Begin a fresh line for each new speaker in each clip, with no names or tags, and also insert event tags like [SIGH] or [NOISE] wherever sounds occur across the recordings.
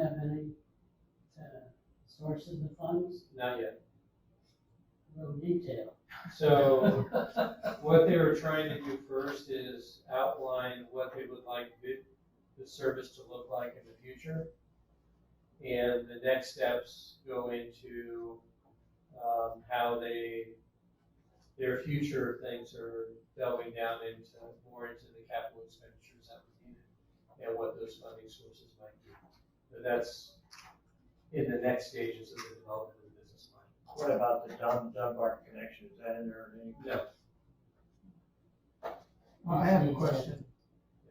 uh, source of the funds,
Not yet.
a little detail.
So what they were trying to do first is outline what they would like the, the service to look like in the future. And the next steps go into, um, how they, their future things are delving down into, more into the capital expenditures that would be needed and what those funding sources might be. But that's in the next stages of the development of the business plan.
What about the Dun- Dunbar connection, is that in there or anything?
No,
Well, I have a question.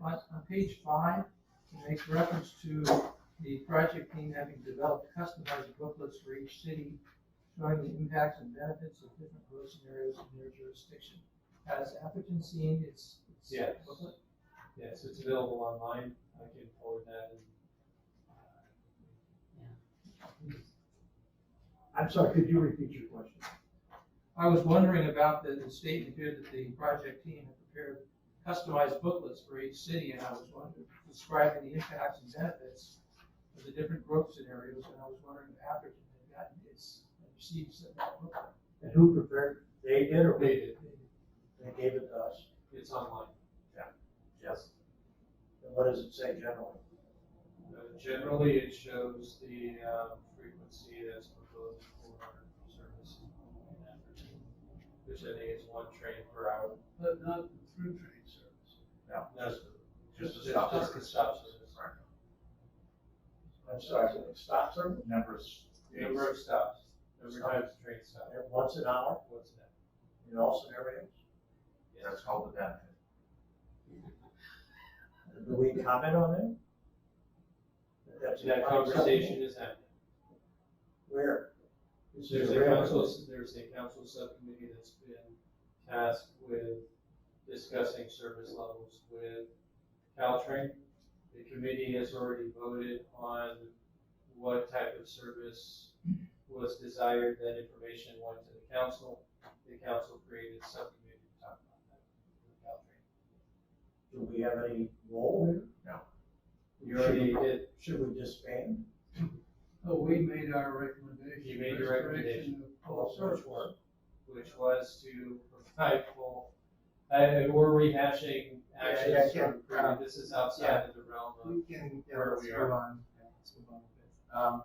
On, on page five, it makes reference to the project team having developed customized booklets for each city showing the impacts and benefits of different growth scenarios in their jurisdiction. Has Atherton seen its, its
Yes.
booklet?
Yes, it's available online. I can forward that. uh, and-
I'm sorry, could you repeat your question?
I was wondering about the, the statement here that the project team had prepared customized booklets for each city, and I was wondering, describing the impacts and benefits of the different growth scenarios, and I was wondering if Atherton had gotten its, received such a booklet.
And who prepared, they did or
They
we,
did.
they gave it to us?
It's online.
Yes. And what does it say generally?
Uh, Generally, it shows the um, frequency that's proposed for our service. in that region, Which I think is one train per hour.
But not through train service.
That's
Just
just-
a stop
Just the
service.
stop service.
I'm sorry, so it stops them
Number of s-
Number of stops, number of times the train stops.
at once an hour
What's that?
in all scenarios?
That's called the benefit.
Do we comment on them? That's-
That conversation is happening.
Where? Is
There's
it
a
railroad?
council, there's a council subcommittee that's been tasked with discussing service levels with Caltrain. The committee has already voted on what type of service was desired, that information went to the council. The council created a subcommittee to talk about that with Caltrain.
Do we have any role here?
You already did,
Should we disband?
So
Oh,
we made our recommendation.
You made your recommendation.
All search work?
which was to provide full, I, we're rehashing
yeah,
actions
yeah.
from, previous- this is outside of the realm of
We can, yeah,
Where
let's
we
move
are.
on, yeah, let's move on with this. Um,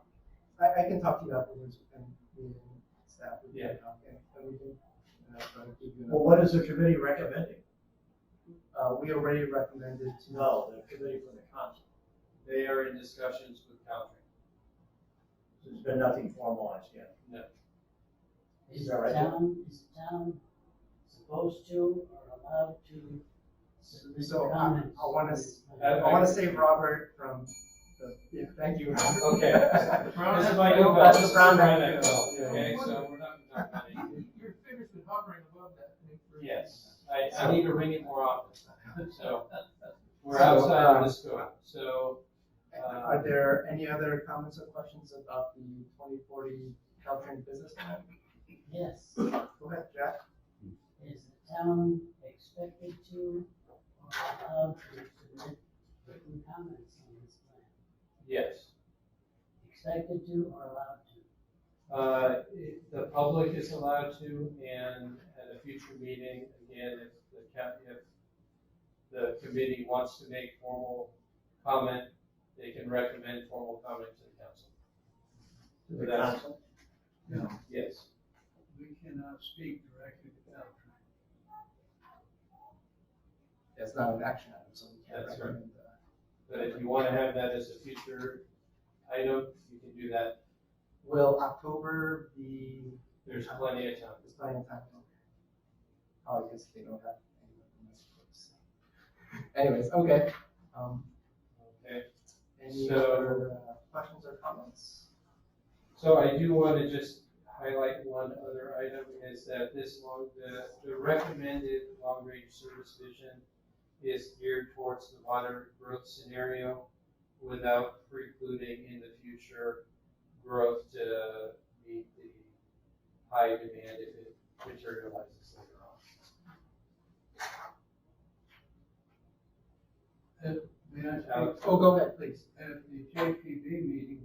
I, I can talk to you afterwards, and me and staff, we
Yeah.
can talk, and and we can, uh, try to give you an
Well, what is the committee recommending?
Uh, we already recommended to.
No, the committee from the council.
They are in discussions with Caltrans.
There's been nothing formalized yet.
Is
Is
the
that right?
town, is the town supposed to or allowed to submit
So, I-
comments?
I wanna s-
I-
I wanna save Robert from the, yeah, thank you. [LAUGHS]
Okay.
Yeah,
This is my new bill,
That's
this
the
is
Brown
my
Act
new
bill,
bill,
yeah.
okay, so we're not gonna talk about it.
Your figure's been hovering above that thing for.
Yes, I, I need to ring it more often, so, we're
So,
outside
uh,
of the scope, so, uh,
Are there any other comments or questions about the twenty forty Caltrain business plan?
Yes,
Go ahead, Jack.
is the town expected to or allowed to submit written comments on this plan?
yes.
Expected to or allowed to?
Uh, it- the public is allowed to, and at a future meeting, again, if the cap, if the committee wants to make formal comment, they can recommend formal comment to the council.
To the
That's-
council?
Yes.
We cannot speak directly to Caltrain.
It's not an action item, so we can't
That's right.
recommend that.
But if you wanna have that as a future item, you can do that,
Will October be,
there's plenty of time.
is plenty of time? Oh, I guess they don't have any of the message books. Anyways, okay, um,
Okay,
any
So-
other uh, questions or comments?
so I do wanna just highlight one other item, is that this long, the, the recommended long-range service vision is geared towards the moderate growth scenario without precluding in the future growth to meet the high demand if it materializes later on.
May I
Alex?
speak?
Oh, go ahead, please.
At the JPB meeting,